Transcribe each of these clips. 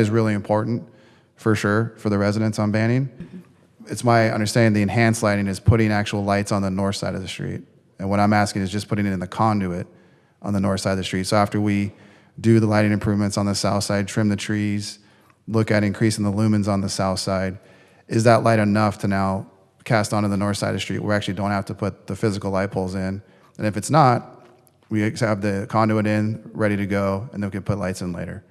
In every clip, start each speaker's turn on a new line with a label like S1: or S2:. S1: is really important, for sure, for the residents on Banning. It's my understanding the enhanced lighting is putting actual lights on the north side of the street. And what I'm asking is just putting it in the conduit on the north side of the street. So after we do the lighting improvements on the south side, trim the trees, look at increasing the lumens on the south side, is that light enough to now cast onto the north side of the street? We actually don't have to put the physical light poles in. And if it's not, we have the conduit in, ready to go, and then we can put lights in later.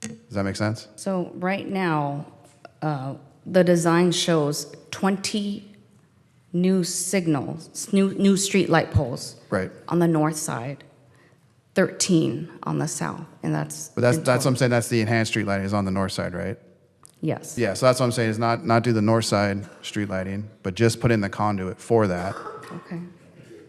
S1: Does that make sense?
S2: So right now, uh, the design shows 20 new signals, s- new, new streetlight poles.
S1: Right.
S2: On the north side, 13 on the south, and that's.
S1: But that's,
S2: in
S1: that's what
S2: total.
S1: I'm saying, that's the enhanced street lighting is on the north side, right?
S2: Yes.
S1: Yeah, so that's what I'm saying, is not, not do the north side street lighting, but just put in the conduit for that,
S2: Okay.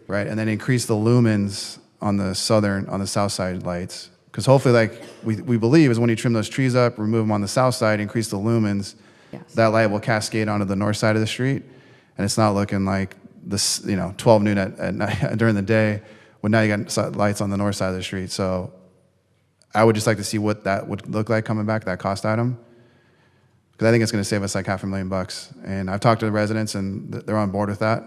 S1: right? And then increase the lumens on the southern, on the south side lights. Because hopefully, like, we, we believe is when you trim those trees up, remove them on the south side, increase the lumens,
S2: Yes.
S1: that light will cascade onto the north side of the street, and it's not looking like this, you know, 12 noon at, at night, during the day, when now you got si- lights on the north side of the street. So I would just like to see what that would look like coming back, that cost item. Because I think it's going to save us like half a million bucks. And I've talked to the residents, and th- they're on board with that.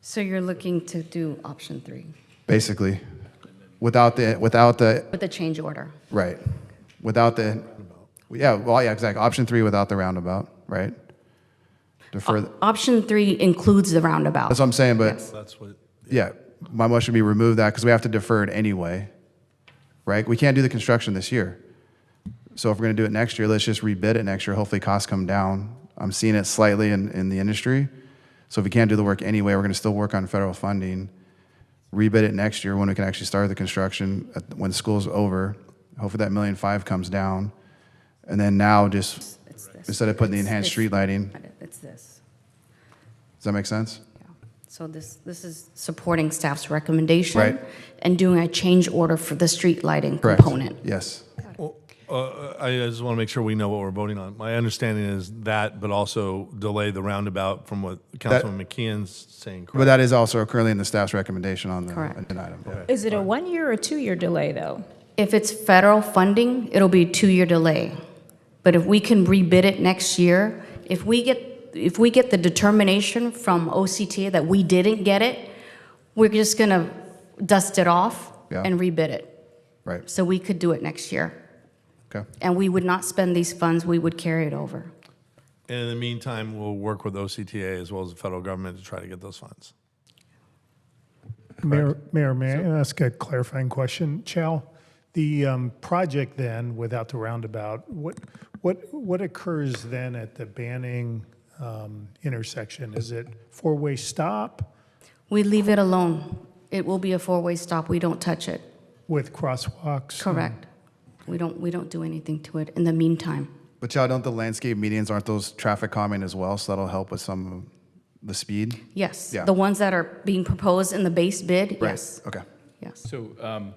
S2: So you're looking to do option three
S1: basically, without the, without the,
S2: with the change order?
S1: right, without the, yeah, well, yeah, exactly, option three without the roundabout, right? Defer, that's
S2: Option three includes the roundabout.
S1: what I'm saying, but,
S2: Yes.
S3: That's what,
S1: yeah, my motion would be remove that, because we have to defer it anyway, right? We can't do the construction this year. So if we're gonna do it next year, let's just rebid it next year, hopefully costs come down. I'm seeing it slightly in, in the industry. So if we can't do the work anyway, we're gonna still work on federal funding. rebid it next year when we can actually start the construction, at- when school's over. Hopefully that million five comes down. And then now just,
S2: It's this.
S1: instead of putting the
S2: It's
S1: enhanced
S2: this.
S1: street lighting,
S2: It's this.
S1: does that make sense?
S2: Yeah. So this, this is supporting staff's recommendation.
S1: Right.
S2: And doing a change order for the street lighting
S1: Correct.
S2: component.
S1: Yes.
S3: well, uh, I I just want to make sure we know what we're voting on. My understanding is that, but also delay the roundabout from what Councilman McKeon's saying,
S1: But
S3: correct?
S1: that is also currently in the staff's recommendation on the
S2: Correct.
S1: agenda item.
S4: Is it a one-year or two-year delay, though?
S2: If it's federal funding, it'll be a two-year delay. But if we can rebid it next year, if we get, if we get the determination from OCTA that we didn't get it, we're just gonna dust it off
S1: Yeah.
S2: and rebid it.
S1: Right,
S2: So we could do it next year.
S1: okay.
S2: And we would not spend these funds, we would carry it over.
S3: And in the meantime, we'll work with OCTA as well as the federal government to try to get those funds.
S5: Mayor, Mayor, may I ask a clarifying question? Chow, the um, project then, without the roundabout, what, what, what occurs then at the Banning um, intersection? Is it four-way stop
S2: We leave it alone. It will be a four-way stop, we don't touch it.
S5: with crosswalks?
S2: Correct.
S1: Mm-hmm.
S2: We don't, we don't do anything to it in the meantime.
S1: But y'all, don't the landscape medians, aren't those traffic calming as well? So that'll help with some of the speed?
S2: Yes,
S1: Yeah.
S2: the ones that are being proposed in the base bid,
S1: Right,
S2: yes,
S1: Okay.
S2: yes.
S6: So um,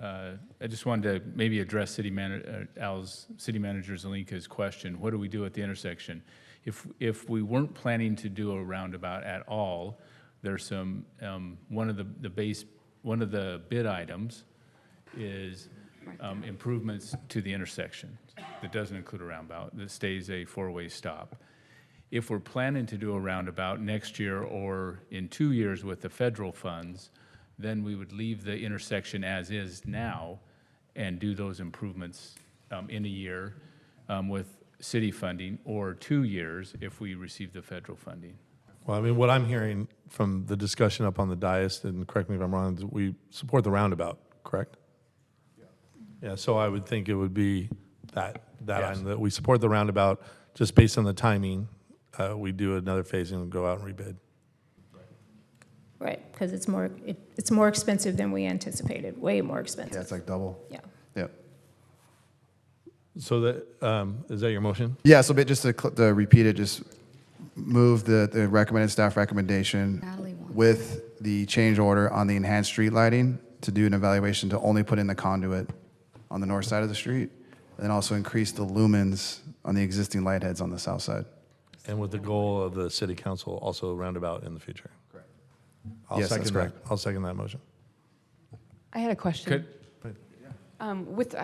S6: uh, I just wanted to maybe address City Manager, Al's, City Manager Zelinka's question. What do we do at the intersection? If, if we weren't planning to do a roundabout at all, there's some, um, one of the, the base, one of the bid items is um, improvements to the intersection that doesn't include a roundabout, that stays a four-way stop if we're planning to do a roundabout next year or in two years with the federal funds, then we would leave the intersection as is now and do those improvements um, in a year um, with city funding or two years if we receive the federal funding.
S3: Well, I mean, what I'm hearing from the discussion up on the dais, and correct me if I'm wrong, is we support the roundabout, correct? Yeah, so I would think it would be that, that item, that we support the roundabout, just based on the timing. uh, We do another phasing and go out and rebid.
S4: Right, because it's more, it- it's more expensive than we anticipated, way more
S1: Yeah,
S4: expensive.
S1: it's like double.
S4: Yeah.
S1: Yep.
S3: So that, um, is that your motion?
S1: Yeah, so but just to, cl- to repeat it, just move the, the recommended staff recommendation
S2: Natalie wants-
S1: with the change order on the enhanced street lighting to do an evaluation to only put in the conduit on the north side of the street, and then also increase the lumens on the existing light heads on the south side.
S3: And with the goal of the city council also roundabout in the future? Correct. I'll
S1: Yes, that's
S3: second that,
S1: correct.
S3: I'll second that motion.
S7: I had a question.
S6: Could,
S7: Um, With,